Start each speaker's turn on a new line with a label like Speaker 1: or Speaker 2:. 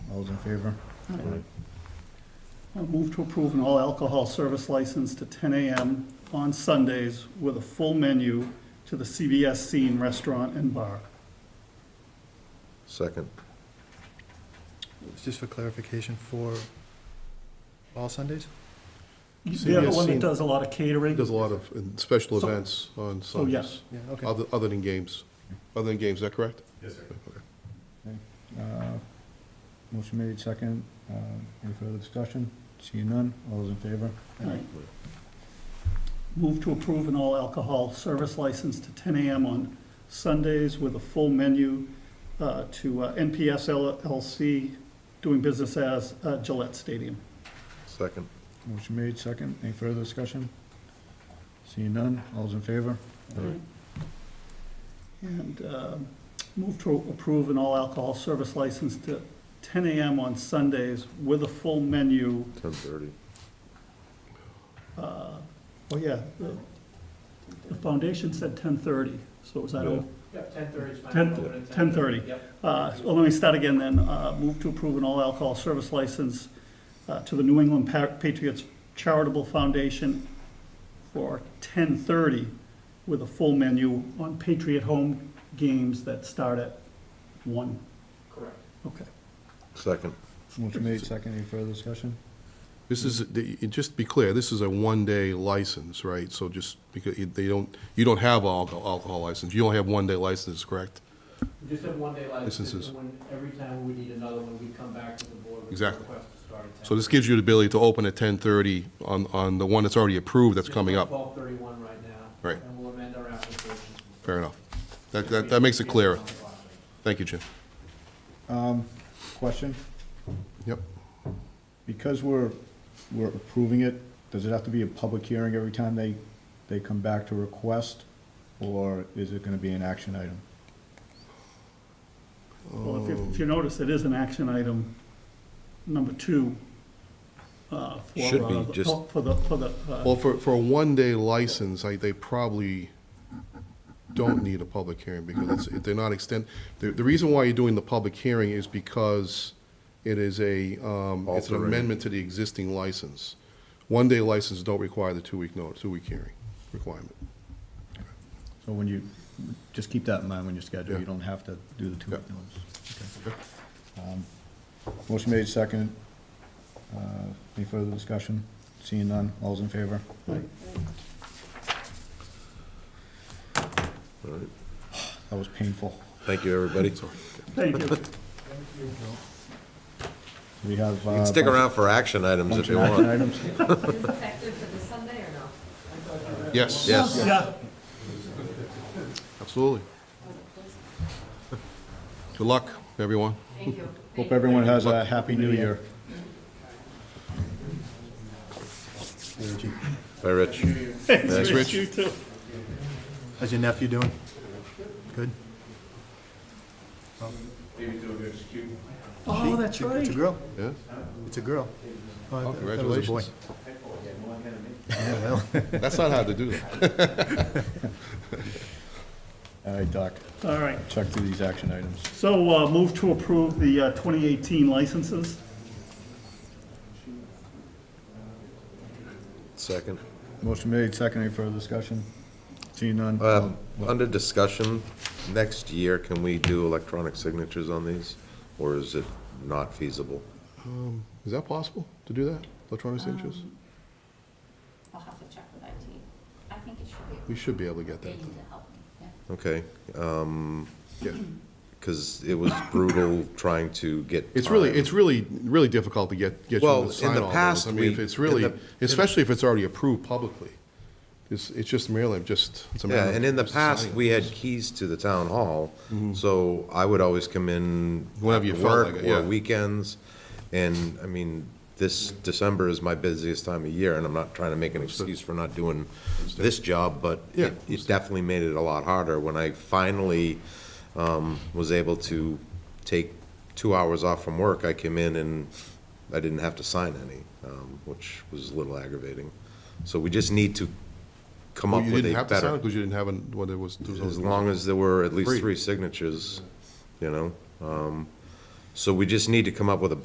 Speaker 1: All those in favor?
Speaker 2: I'll Move to approve an all-alcohol service license to 10 AM on Sundays with a full menu to the CBS Scene Restaurant and Bar.
Speaker 3: Second.
Speaker 4: Just for clarification, for all Sundays?
Speaker 2: They're the
Speaker 3: CBS
Speaker 2: one that
Speaker 3: Scene.
Speaker 2: does a lot of catering,
Speaker 3: There's a lot of um, special
Speaker 2: So-
Speaker 3: events on
Speaker 2: so yes.
Speaker 3: Sundays,
Speaker 4: Yeah, okay.
Speaker 3: other, other than games, other than games, is that correct?
Speaker 5: Yes, sir.
Speaker 3: Okay.
Speaker 1: Uh, Motion made, second. Uh, Any further discussion? Seeing none, all those in favor?
Speaker 2: Right. Move to approve an all-alcohol service license to 10 AM on Sundays with a full menu uh, to uh, NPS LLC, doing business as uh, Gillette Stadium.
Speaker 3: Second.
Speaker 1: Motion made, second. Any further discussion? Seeing none, all those in favor?
Speaker 2: And um, move to approve an all-alcohol service license to 10 AM on Sundays with a full menu.
Speaker 3: Ten thirty.
Speaker 2: uh, Oh, yeah, the- the foundation said 10:30, so is that
Speaker 3: Yeah.
Speaker 2: all?
Speaker 5: Yeah, ten thirty is fine.
Speaker 2: Ten-
Speaker 5: We'll open at
Speaker 2: 10:30.
Speaker 5: Yep.
Speaker 2: Uh, Well, let me start again then. Uh, Move to approve an all-alcohol service license uh, to the New England Pa- Patriots Charitable Foundation for 10:30 with a full menu on Patriot home games that start at 1.
Speaker 5: Correct.
Speaker 2: Okay.
Speaker 3: Second.
Speaker 1: Motion made, second. Any further discussion?
Speaker 3: This is, the- just to be clear, this is a one-day license, right? So just, because you- they don't, you don't have alco- alcohol license, you only have one-day license, correct?
Speaker 5: We just have one day license,
Speaker 3: Licenses.
Speaker 5: and when, every time we need another one, we come back to the board with a
Speaker 3: Exactly.
Speaker 5: request to start at ten.
Speaker 3: So this gives you the ability to open at ten-thirty on, on the one that's already approved that's coming up.
Speaker 5: Twelve thirty-one right now.
Speaker 3: Right.
Speaker 5: And we'll amend our application.
Speaker 3: Fair enough. That, that, that makes it clearer. Thank you, Jim.
Speaker 1: Um, Question?
Speaker 3: Yep.
Speaker 1: Because we're, we're approving it, does it have to be a public hearing every time they, they come back to request? Or is it gonna be an action item?
Speaker 2: Well, if you,
Speaker 6: Oh.
Speaker 2: if you notice, it is an action item, number two. uh, for,
Speaker 6: Should be,
Speaker 2: uh, the-
Speaker 6: just- Oh.
Speaker 2: For the, for the, uh,
Speaker 3: Well, for, for a one-day license, I, they probably don't need a public hearing because it's, they're not extend, the, the reason why you're doing the public hearing is because it is a, um, it's an
Speaker 6: Altering.
Speaker 3: amendment to the existing license. One-day licenses don't require the two-week notice, two-week hearing requirement.
Speaker 1: So when you, just keep that in mind when you schedule, you
Speaker 3: Yeah.
Speaker 1: don't have to do the two
Speaker 3: Yeah.
Speaker 1: notice. Um, Motion made, second. Uh, Any further discussion? Seeing none, all's in favor?
Speaker 6: All right.
Speaker 1: That was painful.
Speaker 6: Thank you, everybody.
Speaker 2: thank you.
Speaker 1: We have. uh,
Speaker 6: You can stick around for action items if you want.
Speaker 1: Items.
Speaker 7: Is it effective for this Sunday or no?
Speaker 3: Yes,
Speaker 6: Yes,
Speaker 2: Yeah,
Speaker 3: absolutely. Good luck, everyone.
Speaker 7: Thank you.
Speaker 1: Hope everyone has a happy new year.
Speaker 6: bye, Rich.
Speaker 3: Thanks, Rich.
Speaker 4: How's your nephew doing? Good?
Speaker 2: oh, that's
Speaker 4: It's a- It's a
Speaker 2: right.
Speaker 4: girl.
Speaker 3: Yeah?
Speaker 4: It's a girl. Oh, I
Speaker 3: Oh,
Speaker 4: thought it was a boy.
Speaker 3: Congratulations.
Speaker 4: Yeah, well,
Speaker 3: That's not how to do that.
Speaker 1: All right, Doc,
Speaker 2: All right,
Speaker 1: check through these action items.
Speaker 2: so uh, move to approve the uh, 2018 licenses.
Speaker 6: Second.
Speaker 1: Motion made, second. Any further discussion? Seeing none?
Speaker 6: Um, Under discussion, next year, can we do electronic signatures on these? Or is it not feasible?
Speaker 3: Um, Is that possible to do that, electronic signatures?
Speaker 7: I'll have to check with IT. I think it should
Speaker 3: We
Speaker 7: be,
Speaker 3: should be able to get
Speaker 7: they
Speaker 3: that.
Speaker 7: need to help me, yeah.
Speaker 6: Okay,
Speaker 3: Yeah.
Speaker 6: because it was brutal trying to get.
Speaker 3: It's really,
Speaker 6: time.
Speaker 3: it's really, really difficult to get, get you
Speaker 6: Well, in
Speaker 3: to
Speaker 6: the
Speaker 3: sign all those.
Speaker 6: past,
Speaker 3: I mean, if
Speaker 6: we-
Speaker 3: it's really,
Speaker 6: in the-
Speaker 3: especially if it's already approved publicly. It's, it's just merely, just, it's a matter
Speaker 6: Yeah,
Speaker 3: of.
Speaker 6: and in the
Speaker 3: just
Speaker 6: past,
Speaker 3: signing it.
Speaker 6: we had keys to the town hall, so I would always come in.
Speaker 3: Whenever you
Speaker 6: after
Speaker 3: felt
Speaker 6: work
Speaker 3: like it, yeah.
Speaker 6: Or weekends, and, I mean, this December is my busiest time of year, and I'm not trying to make an excuse for not doing this job, but
Speaker 3: Yeah,
Speaker 6: it it definitely made it a lot harder when I finally um, was able to take two hours off from work. I came in and I didn't have to sign any, um, which was a little aggravating. So we just need to come
Speaker 3: Well,
Speaker 6: up
Speaker 3: You
Speaker 6: with a
Speaker 3: didn't have to sign it
Speaker 6: better.
Speaker 3: because you didn't have, an- what it was. there was
Speaker 6: As
Speaker 3: only-
Speaker 6: long as there were at
Speaker 3: Three.
Speaker 6: least three signatures, you know? Um, So we just need to come up with a